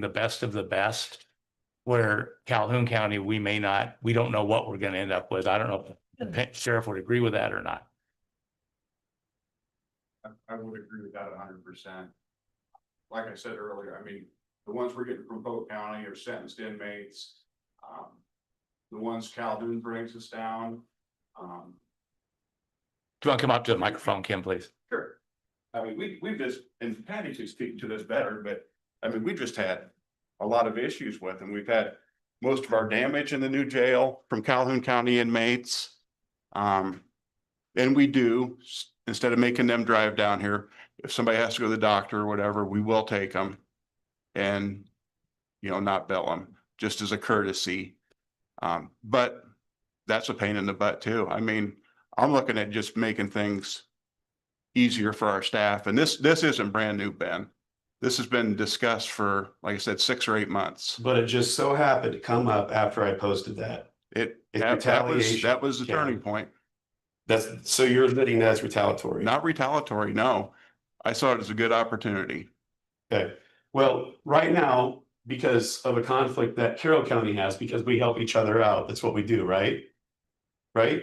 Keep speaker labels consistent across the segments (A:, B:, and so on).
A: the best of the best. Where Calhoun County, we may not, we don't know what we're gonna end up with. I don't know if the sheriff would agree with that or not.
B: I, I would agree with that hundred percent. Like I said earlier, I mean, the ones we're getting from Polk County are sentenced inmates. Um, the ones Calhoun brings us down, um,
A: Do you want to come up to the microphone, Kim, please?
B: Sure. I mean, we, we've just, and Patty can speak to this better, but, I mean, we just had a lot of issues with them. We've had most of our damage in the new jail from Calhoun County inmates. Um, and we do, s- instead of making them drive down here, if somebody has to go to the doctor or whatever, we will take them. And, you know, not bill them, just as a courtesy. Um, but that's a pain in the butt too. I mean, I'm looking at just making things easier for our staff. And this, this isn't brand new, Ben. This has been discussed for, like I said, six or eight months.
C: But it just so happened to come up after I posted that.
B: It,
C: It's
B: that that was,
C: retaliation,
B: that was the
C: Kevin.
B: turning point,
C: That's, so you're admitting that's retaliatory.
B: not retaliatory, no. I saw it as a good opportunity.
C: Okay, well, right now, because of a conflict that Carroll County has, because we help each other out, that's what we do, right? Right?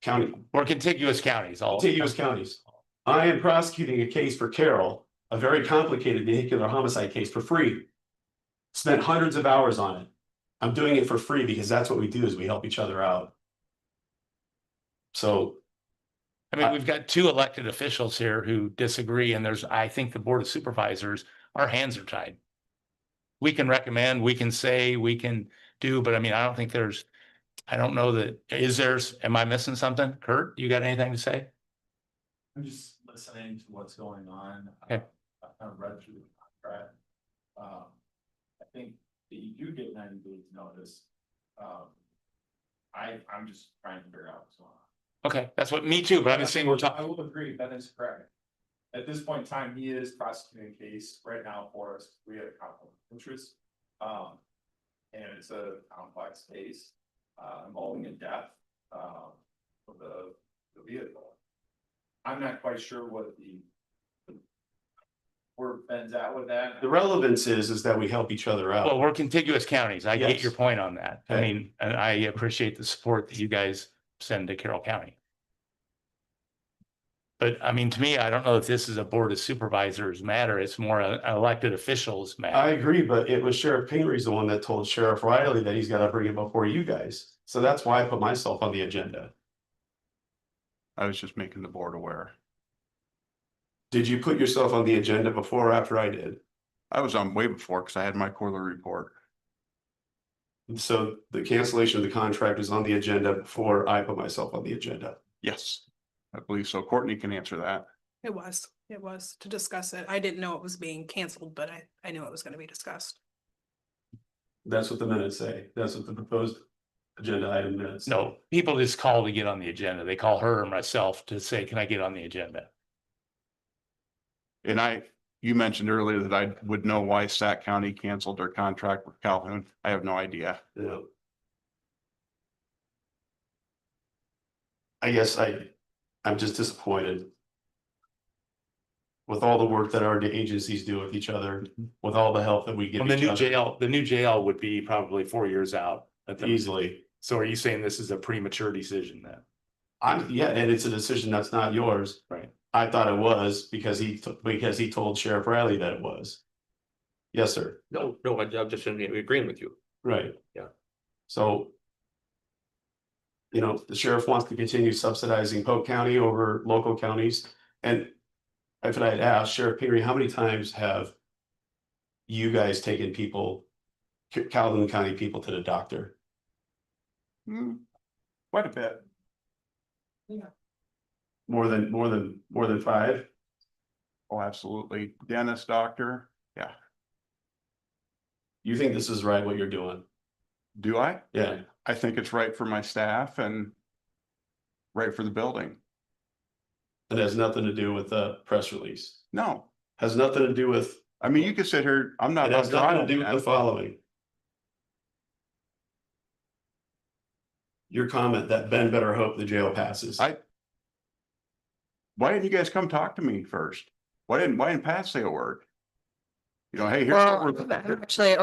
C: County,
A: Or contiguous counties, all.
C: contiguous counties. I am prosecuting a case for Carroll, a very complicated vehicular homicide case for free. Spent hundreds of hours on it. I'm doing it for free because that's what we do is we help each other out. So
A: I mean, we've got two elected officials here who disagree and there's, I think the Board of Supervisors, our hands are tied. We can recommend, we can say, we can do, but I mean, I don't think there's, I don't know that, is there's, am I missing something? Kurt, you got anything to say?
D: I'm just listening to what's going on.
A: Okay.
D: I kind of read through the contract. Um, I think that you do get ninety days notice. Um, I, I'm just trying to figure out what's going on.
A: Okay, that's what, me too, but I'm just saying we're
D: I
A: talking,
D: will agree, that is correct. At this point in time, he is prosecuting a case right now for us, we had a conflict of interest. Um, and it's a complex case, uh, involving a death, um, of the, the vehicle. I'm not quite sure what the where Ben's at with that.
C: The relevance is, is that we help each other
A: well,
C: out.
A: we're contiguous counties. I get
C: Yes.
A: your point on that. I
C: Okay.
A: mean, and I appreciate the support that you guys send to Carroll County. But I mean, to me, I don't know if this is a Board of Supervisors matter. It's more a- an elected officials
C: I
A: matter.
C: agree, but it was Sheriff Pingree the one that told Sheriff Riley that he's gotta bring it before you guys. So that's why I put myself on the agenda.
B: I was just making the board aware.
C: Did you put yourself on the agenda before or after I did?
B: I was on way before because I had my quarterly report.
C: So the cancellation of the contract is on the agenda before I put myself on the agenda.
B: Yes, I believe so. Courtney can answer that.
E: It was, it was to discuss it. I didn't know it was being canceled, but I, I knew it was gonna be discussed.
C: That's what the minutes say. That's what the proposed agenda item minutes. say.
A: No, people just call to get on the agenda. They call her or myself to say, can I get on the agenda?
B: And I, you mentioned earlier that I would know why Sac County canceled their contract with Calhoun. I have no idea.
C: No. I guess I, I'm just disappointed. With all the work that our agencies do with each other, with all the help that we give
A: Mm-hmm. Well, the
C: each
A: new
C: other
A: jail, the new jail would be probably four years out. at the-
C: easily.
A: So are you saying this is a premature decision then?
C: I'm, yeah, and it's a decision that's not yours.
A: Right.
C: I thought it was because he, t- because he told Sheriff Riley that it was. Yes, sir.
F: No, no, I- I'm just in- agreeing with you.
C: Right.
F: Yeah.
C: So. You know, the sheriff wants to continue subsidizing Polk County over local counties and. If I had asked Sheriff Peary, how many times have? You guys taken people, Ca- Calhoun County people to the doctor?
B: Hmm, Quite a bit.
C: More than, more than, more than five?
B: Oh, absolutely. Dentist, doctor.
C: You think this is right what you're doing?
B: Do I?
C: Yeah,
B: I think it's right for my staff and right for the building.
C: it has nothing to do with the press release,
B: No,
C: has nothing to do with,
B: I mean, you could sit here, I'm not.
C: it has
B: on
C: nothing
B: trial,
C: to do with
B: man.
C: the following. Your comment that Ben better hope the jail passes.
B: I- Why didn't you guys come talk to me first? Why didn't, why didn't Pat say a word? You know, hey, here's. what
G: Well,
B: we're-
G: actually,